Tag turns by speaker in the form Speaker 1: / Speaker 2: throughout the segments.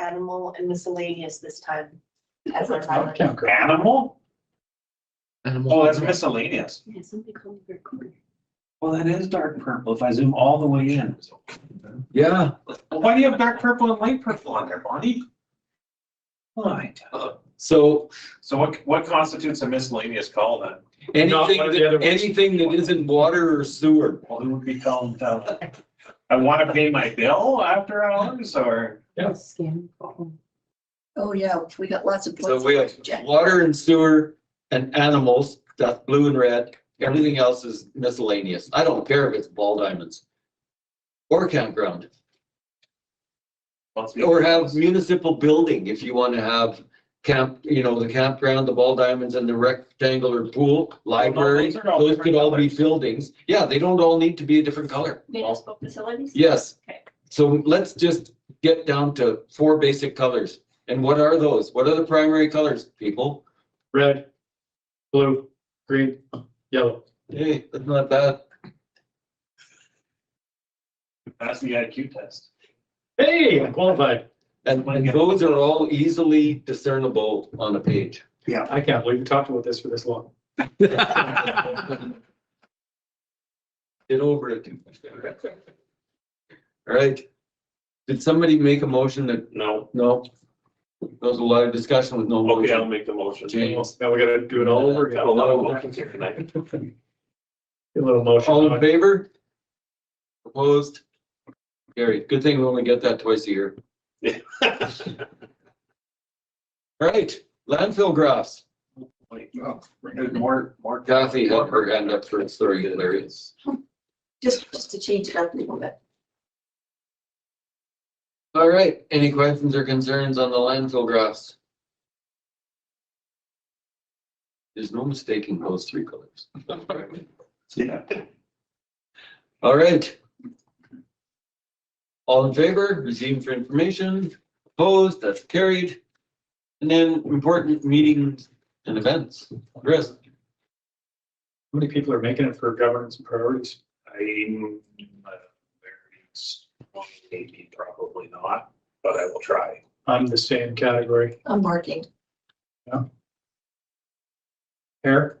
Speaker 1: animal and miscellaneous this time. as our
Speaker 2: Not
Speaker 1: highlight.
Speaker 2: count code.
Speaker 3: Animal?
Speaker 4: Animal
Speaker 3: Oh, that's
Speaker 4: control.
Speaker 3: miscellaneous.
Speaker 1: Yeah, something called the recorder.
Speaker 3: Well, that is dark purple if I zoom all the way in.
Speaker 4: Yeah,
Speaker 3: Well, Why do you have dark purple and light purple on there, Bonnie? Why?
Speaker 4: so
Speaker 3: So what, what constitutes a miscellaneous call then? Not
Speaker 4: anything,
Speaker 3: one of the other
Speaker 4: that-
Speaker 3: ones.
Speaker 4: anything that isn't water or sewer.
Speaker 3: Well, who would be called, uh, I want to pay my bill after hours or?
Speaker 2: Yeah.
Speaker 1: Scan. call.
Speaker 5: Oh, yeah, we got lots of.
Speaker 4: So we have
Speaker 5: places to check.
Speaker 4: water and sewer and animals, that's blue and red. Everything else is miscellaneous. I don't care if it's ball diamonds. Or campground,
Speaker 3: Let's be-
Speaker 4: or have municipal building if you want to have camp, you know, the campground, the ball diamonds and the rectangular pool, library.
Speaker 3: those are all
Speaker 4: Those could all be
Speaker 3: different
Speaker 4: buildings. Yeah, they don't all need to be a different color.
Speaker 1: Municipal facilities?
Speaker 4: Yes.
Speaker 1: Okay.
Speaker 4: So let's just get down to four basic colors. And what are those? What are the primary colors, people?
Speaker 2: Red, blue, green, yellow.
Speaker 4: Hey, that's not bad.
Speaker 3: That's the IQ test.
Speaker 2: Hey, I qualified.
Speaker 4: And and those are all easily discernible on a page.
Speaker 2: I can't believe we talked about this for this long.
Speaker 4: Get over it. All right. Did somebody make a motion that,
Speaker 6: No,
Speaker 4: no? There was a lot of discussion with no
Speaker 6: okay, I'll
Speaker 4: motion.
Speaker 6: make the motion.
Speaker 4: James.
Speaker 2: Now we gotta do it all over again.
Speaker 6: Got a lot of motions here tonight.
Speaker 2: A little motion.
Speaker 4: All in favor? Opposed? Gary, good thing we only get that twice a year. All right, landfill graphs.
Speaker 3: Like, oh, there's More, more.
Speaker 4: Kathy had her hand up for story hilarious.
Speaker 5: Just, just to change it up a little bit.
Speaker 4: All right, any questions or concerns on the landfill graphs? There's no mistaking those three colors.
Speaker 3: Yeah.
Speaker 4: All right. All in favor, received for information, opposed, that's carried. And then important meetings and events. Chris,
Speaker 2: How many people are making it for governance and priorities?
Speaker 3: I'm uh, very strong, maybe probably not, but I will try.
Speaker 2: I'm the same category.
Speaker 5: I'm marking.
Speaker 2: Hair?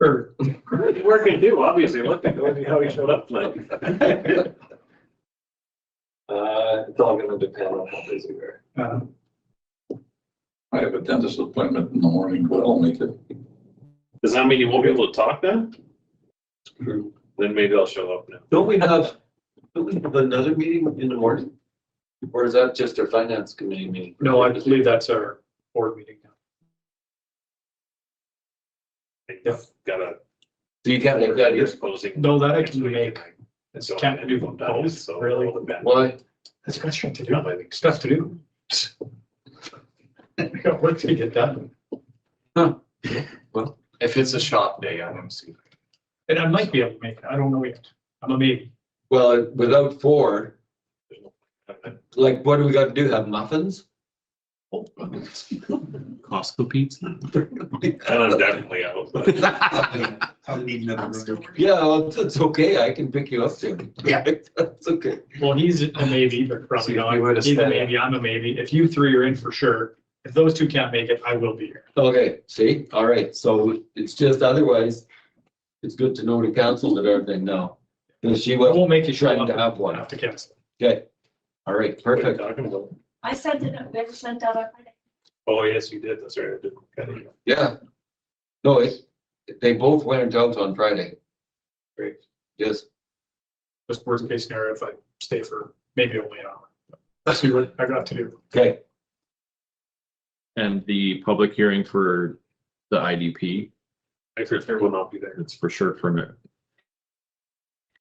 Speaker 2: Or
Speaker 3: Where can do, obviously, look, I don't know how he showed up tonight.
Speaker 6: Uh, it's all gonna depend on how busy we are.
Speaker 2: uh,
Speaker 7: I have a dentist appointment in the morning, but I'll make it.
Speaker 6: Does that mean you won't be able to talk then?
Speaker 4: True.
Speaker 6: Then maybe I'll show up now.
Speaker 4: don't we have, don't we have another meeting in the morning? Or is that just our finance committee meeting?
Speaker 2: No, I believe that's our board meeting now. Yeah.
Speaker 6: Gotta.
Speaker 4: So you can't make that, yes?
Speaker 6: Disposing.
Speaker 2: No, that I can make. It's
Speaker 6: So
Speaker 2: can't do
Speaker 6: I'm done,
Speaker 2: both,
Speaker 6: so-
Speaker 2: really.
Speaker 4: Why?
Speaker 2: That's got stuff to do. Stuff to do. I got work to get done.
Speaker 8: If it's a shop day, I want to see.
Speaker 2: And I might be able to make it. I don't know yet. I'm a maybe.
Speaker 4: Well, without four, like, what do we gotta do? Have muffins?
Speaker 8: Costco pizza.
Speaker 6: And I'm definitely out. but-
Speaker 5: I'm still working.
Speaker 4: Yeah, well, it's, it's okay. I can pick you up soon.
Speaker 8: Yeah.
Speaker 4: That's okay.
Speaker 2: Well, he's a maybe, but probably
Speaker 8: See, if you would've
Speaker 2: not. He's a
Speaker 8: said-
Speaker 2: maybe, I'm a maybe. If you three are in for sure, if those two can't make it, I will be here.
Speaker 4: Okay, see? All right. So it's just otherwise, it's good to know to cancel it everything now. And she
Speaker 2: I
Speaker 4: was
Speaker 2: won't make you show
Speaker 4: trying
Speaker 2: up.
Speaker 4: to have
Speaker 2: I'll
Speaker 4: one.
Speaker 2: have to cancel.
Speaker 4: Okay. All right, perfect.
Speaker 6: Talking about-
Speaker 1: I sent it, I've never sent out. our-
Speaker 6: Oh, yes, you did. That's right. I did. Got it.
Speaker 4: Yeah. No, it, they both went out on Friday.
Speaker 2: Great.
Speaker 4: Yes.
Speaker 2: Just worst case scenario, if I stay for maybe only an hour. Let's see what I got to do.
Speaker 4: Okay.
Speaker 8: And the public hearing for the IDP,
Speaker 6: I for sure will not be there.
Speaker 8: it's for sure for me.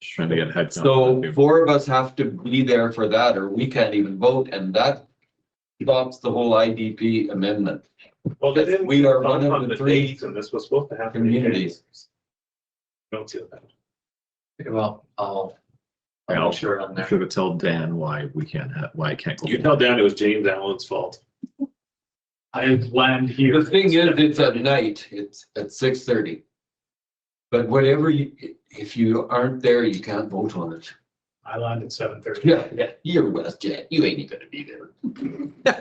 Speaker 8: Just trying to get a head count.
Speaker 4: So four of us have to be there for that or we can't even vote and that stops the whole IDP amendment.
Speaker 6: Well, they didn't.
Speaker 4: We are one
Speaker 6: on
Speaker 4: of
Speaker 6: the
Speaker 4: the three
Speaker 6: dates, And this was supposed to happen. in
Speaker 4: communities.
Speaker 6: January. Don't feel that.
Speaker 8: Well, I'll. I'll share it on there. Should have told Dan why we can't have, why I can't go.
Speaker 6: You can tell Dan it was James Allen's fault.
Speaker 2: I land here.
Speaker 4: The thing is, it's at night, it's at six thirty. But whatever you, if you aren't there, you can't vote on it.
Speaker 2: I land at seven thirty.
Speaker 4: yeah. You're West Jet, you ain't even gonna be there.